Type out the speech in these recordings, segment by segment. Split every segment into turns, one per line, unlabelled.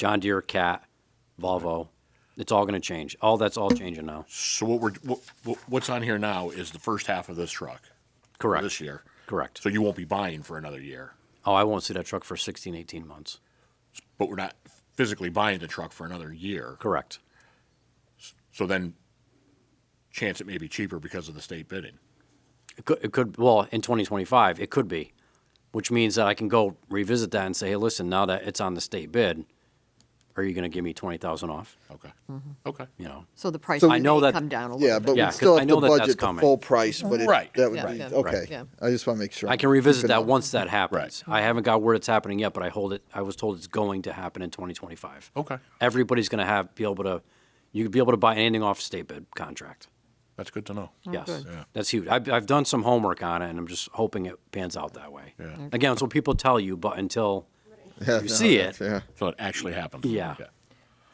John Deere, Cat, Volvo. It's all going to change. All that's all changing now.
So what we're, what- what, what's on here now is the first half of this truck. for
Correct.
This year.
Correct.
So you won't be buying for another year,
Oh, I won't see that truck for 16, 18 months.
but we're not physically buying the truck for another year.
Correct.
So then, chance it may be cheaper because of the state bidding.
It could, it could well in 2025 it could be, which means that I can go revisit that and say, hey, listen, now that it's on the state bid, are you going to give me 20,000 off?
Okay.
Mm-hmm.
Okay.
You know,
So the price
I
may
know that-
come down a little bit.
Yeah, but
Yeah,
we
'cause
still
I
have
know
to
that that's
budget the
coming.
full price, but it,
Right,
that would
yeah,
be,
yeah,
okay.
yeah.
I just want to make sure.
I can revisit
Keep it
that
up.
once that happens. I haven't got word it's happening yet, but I hold it. I was told it's going to happen in 2025.
Okay.
Everybody's going to have be able to, you could be able to buy anything off state bid contract.
That's good to know.
Yes,
Oh, good.
Yeah.
that's huge. I've, I've done some homework on it, and I'm just hoping it pans out that way.
Yeah. Okay.
Again, it's what people tell you, but until
Yeah,
you
no,
see
that's-
it.
Yeah.
So it actually happens.
Yeah.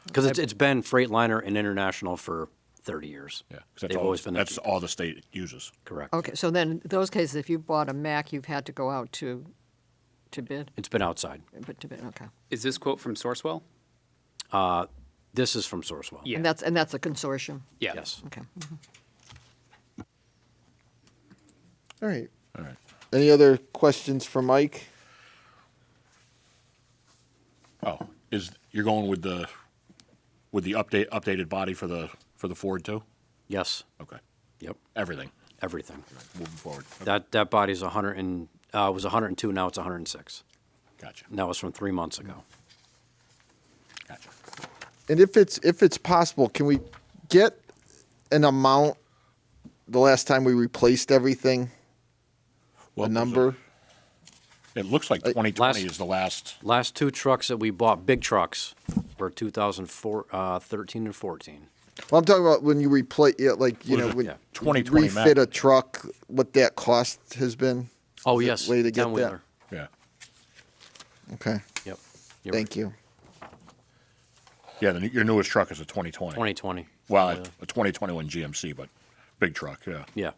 because it's, it's been Freightliner and International for 30 years.
Yeah. 'Cause that's
they've
all-
always been the
That's
cheap-
all the state uses.
correct.
Okay, so then those cases, if you bought a Mac, you've had to go out to, to bid,
It's been outside.
but to bid, okay.
Is this quote from Sourcewell?
This is from Sourcewell.
Yeah.
And that's, and that's a consortium,
Yeah.
Yes.
okay. Mm-hmm.
All right.
All right.
Any other questions for Mike?
Oh, is, you're going with the, with the update, updated body for the, for the Ford too?
Yes.
Okay.
Yep.
Everything,
Everything.
moving forward. Okay.
That that body's 100 and uh, was 102. Now it's 106.
Gotcha.
And that was from three months ago.
Gotcha.
And if it's, if it's possible, can we get an amount the last time we replaced everything?
Well,
A number?
It looks like 2020
last-
is the last.
Last two trucks that we bought, big trucks, were 2004, uh, 13 and 14.
Well, I'm talking about when you replace, yeah, like, you
What
know,
is it?
when
Yeah.
you
2020 Mac.
refit a truck, what that cost has been?
Oh
Is that
yes,
way to get that?
10-wheeler.
Yeah.
Okay,
Yep.
thank you.
Yeah, the, new- your newest truck is a 2020.
2020.
Well, a 2021 GMC, but big truck, yeah.
Yeah.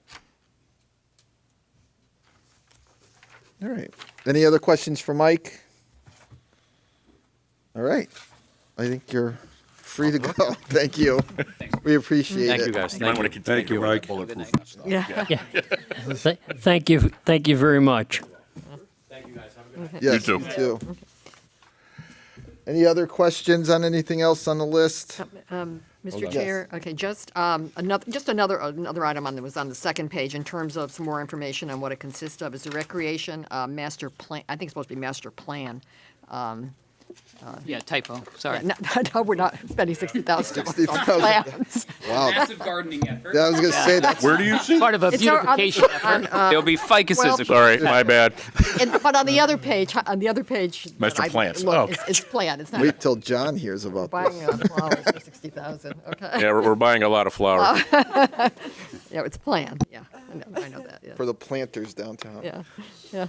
All right. Any other questions for Mike? All right. I think you're free to go. Thank you. We appreciate it.
Thank you guys.
You might
Thank
want
you.
to continue
Thank you,
with that
Mike.
bulletproof stuff.
Yeah.
Th- Thank you, thank you very much.
Yes,
You too.
too. Any other questions on anything else on the list?
Mr. Chair, okay, just um, another, just another, another item on, that was on the second page in terms of some more information on what it consists of. Is the recreation uh, master plan, I think it's supposed to be master plan.
Yeah, typo. Sorry.
No, no, we're not spending sixty thousand dollars on
60,000.
plans.
Massive gardening effort.
I was gonna say that.
Where do you see?
Part of a
It's our other-
beautification
on,
effort.
uh,
There'll be
well-
ficuses.
Sorry,
my bad.
And, but on the other page, on the other page. that
Master
I
plans.
looked,
Oh,
it's, it's plan. It's not
Wait till John hears about
buying
this.
uh, flowers for sixty thousand. Okay.
Yeah, we're, we're buying a lot of flowers.
Yeah, it's planned. Yeah, I know, I know that. Yeah.
For the planters downtown.
yeah. Yeah.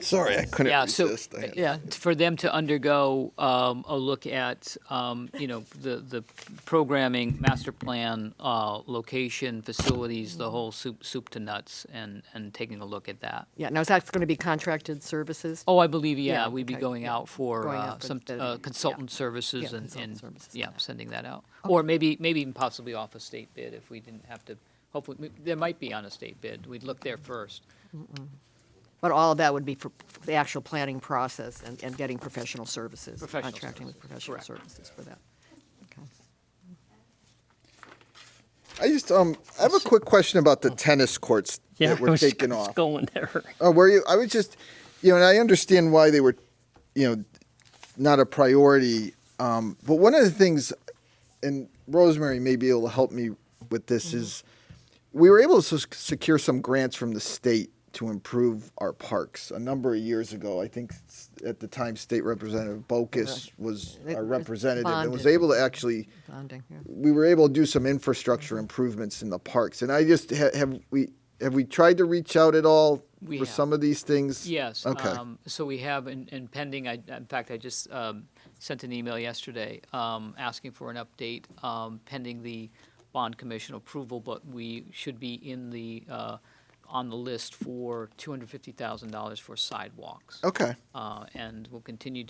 Sorry, I couldn't
Yeah, so,
resist. I had-
yeah, for them to undergo um, a look at, um, you know, the, the programming, master plan, uh, location, facilities, the whole soup, soup to nuts, and, and taking a look at that.
Yeah. Now is that going to be contracted services?
Oh, I believe, yeah,
Yeah,
we'd be
okay,
going
yeah.
out for
Going
uh,
out for
some
the-
uh,
yeah.
consultant services and,
consultant
and,
services,
yeah,
yeah.
sending that out. Or maybe, maybe even possibly off a state bid if we didn't have to, hopefully, we- there might be on a state bid. We'd look there first.
But all of that would be for for the actual planning process and, and getting professional services.
Professional
Contracting with professional
correct.
services for that. Okay.
I just, um, I have a quick question about the tennis courts
Yeah,
that
I
were
was
taken
just
off.
Going there.
Oh, were you? I was just, you know, and I understand why they were, you know, not a priority. Um, but one of the things, and Rosemary may be able to help me with this, is we were able to s- secure some grants from the state to improve our parks a number of years ago. I think s- at the time, State Representative Bocus was
It
our
was
representative and was
bonded.
able to actually
Bonding, yeah.
we were able to do some
Mm-hmm.
infrastructure improvements in the parks. And I just ha- have we have we tried to reach out at all
We
for
have.
some of these things?
Yes.
Okay.
um, So we have, and and pending, I, in fact, I just um, sent an email yesterday um, asking for an update um, pending the bond commission approval, but we should be in the uh, on the list for $250,000 for sidewalks.
Okay.
Uh, And we'll continue to